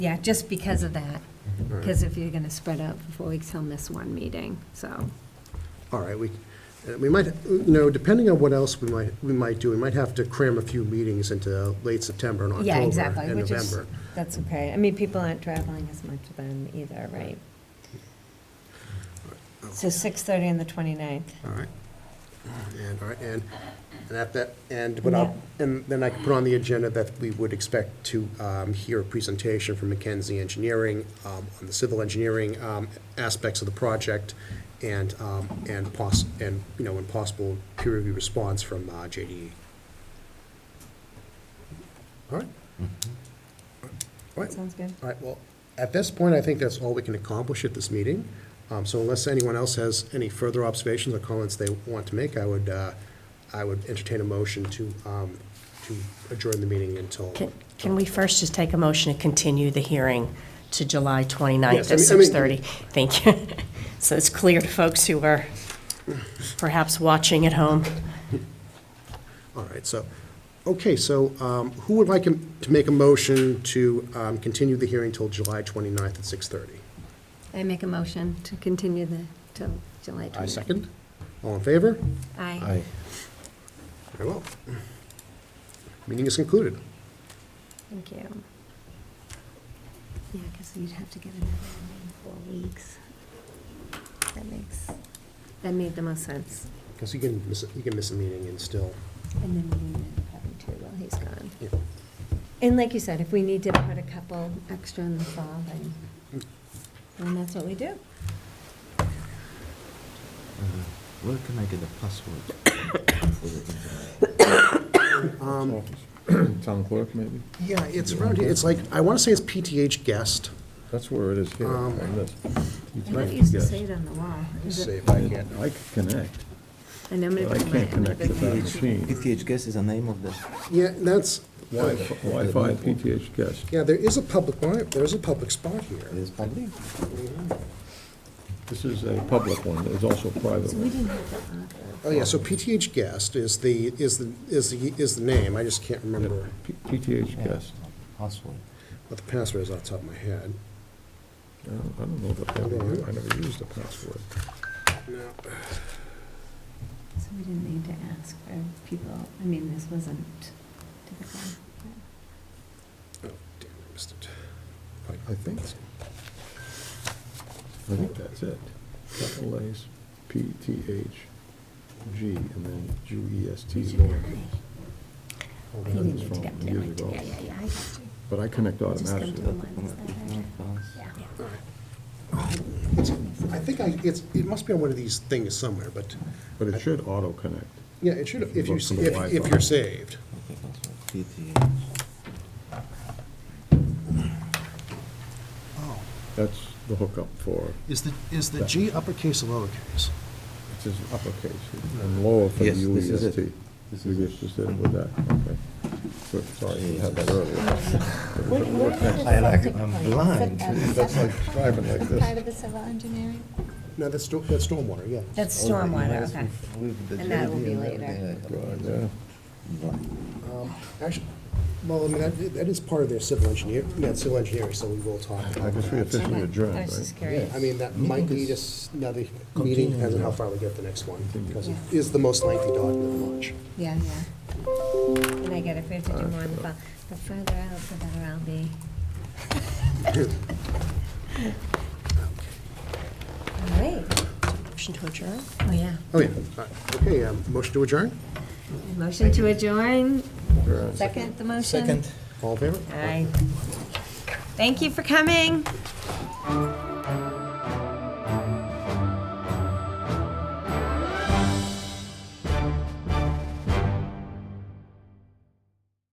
Yeah, just because of that, Mm-hmm. because if you're going to spread out for four weeks, he'll miss one meeting, so. All right, we, uh, we might, you know, depending on what else we might, we might do, we might have to cram a few meetings into late September and Yeah, October exactly, and which is, November. that's okay. I mean, people aren't traveling as much then either, right? So 6:30 on the 29th. All right. And, all right, and, and at that, and what I'll, and then I can put on the agenda that we would expect to um, hear a presentation from McKenzie Engineering um, on the civil engineering um, aspects of the project and, um, and poss, and, you know, and possible peer review response from uh, JDE. All right. All right. Sounds good. All right, well, at this point, I think that's all we can accomplish at this meeting. Um, So unless anyone else has any further observations or comments they want to make, I would, uh, I would entertain a motion to, um, to adjourn the meeting until. Can- Can we first just take a motion to continue the hearing to July 29th Yes, I at mean- I mean- 6:30? Thank you. So it's clear to folks who are perhaps watching at home. All right, so, okay, so um, who would like to make a motion to um, continue the hearing till July 29th at 6:30? I make a motion to continue the, till July 29th. I second. All in favor? Aye. Very well. Meeting is concluded. Thank you. Yeah, because you'd have to get another one in four weeks. That makes, that made the most sense. Because you can, miss- you can miss a meeting and still, And then we need to probably two while he's gone. you know, And like you said, if we need to put a couple extra in the fall, then, then that's what we do. Uh, Where can I get the password? for the internet? Town clerk, maybe? Yeah, it's around here, it's like, I want to say it's PTH guest. That's where it is here, Um, on this. I thought it used to say it on the wall. Is it- if I can. I can connect, And I'm gonna but I put my- I'm can't gonna connect to put my. that machine. PTH guest is the name of the, Yeah, that's, Wi-Fi Wi-Fi PTH guest. yeah, there is a public, bar- there's a public spot here. it is public? This is a public one, there's also a private So we one. didn't have that on there. Oh, yeah, so PTH guest is the, is the, is the, is the name, I just can't remember P- PTH guest. Password. what the password is off the top of my head. I don't I don't know that, I never- I never used the password. No. So we didn't need to ask for people, I mean, this wasn't typical. Oh, damn, I missed it. I think, I think that's it. Capital A's, PTH, G, and then G E S T. Did you Lord. really? I Hold on, didn't it's need to from get years there. ago. Yeah, yeah, yeah, I got you. But I connect Just come to automatically. the one, is that right? Yeah. I think I, it's, it must be on one of these things somewhere, but, But it should auto-connect. yeah, it should, if you, Look for the if, if Wi-Fi. you're saved. Okay, password, PTH. Oh, That's the hookup for, is the, is the G uppercase or lowercase? it says uppercase and lower for the E Yes, this is it. UEST. This You is just just did it with that, okay. Good, Sorry, you had that earlier. I like, I'm blind. That's like driving like Part this. of the civil engineering? No, that's, sto- that's stormwater, yeah. That's stormwater, okay. With the And that will JD be and later. everything, Yeah. uh, blind. Um, Actually, well, I mean, that that is part of their civil engineer, yeah, civil engineering, so we will talk. I about guess we that. officially adjourned, I was just right? curious. I mean, that might lead us another meeting, depends on how far we get the next one, because it is the most lengthy document launch. Yeah, yeah. And I get it, if we have to do more in the fall, the further out, the better I'll be. All right, Motion to adjourn? oh, yeah. Oh, yeah, All right. okay, um, motion to adjourn, Motion to adjourn, second the motion? Second. all in favor? Aye. Thank you for coming.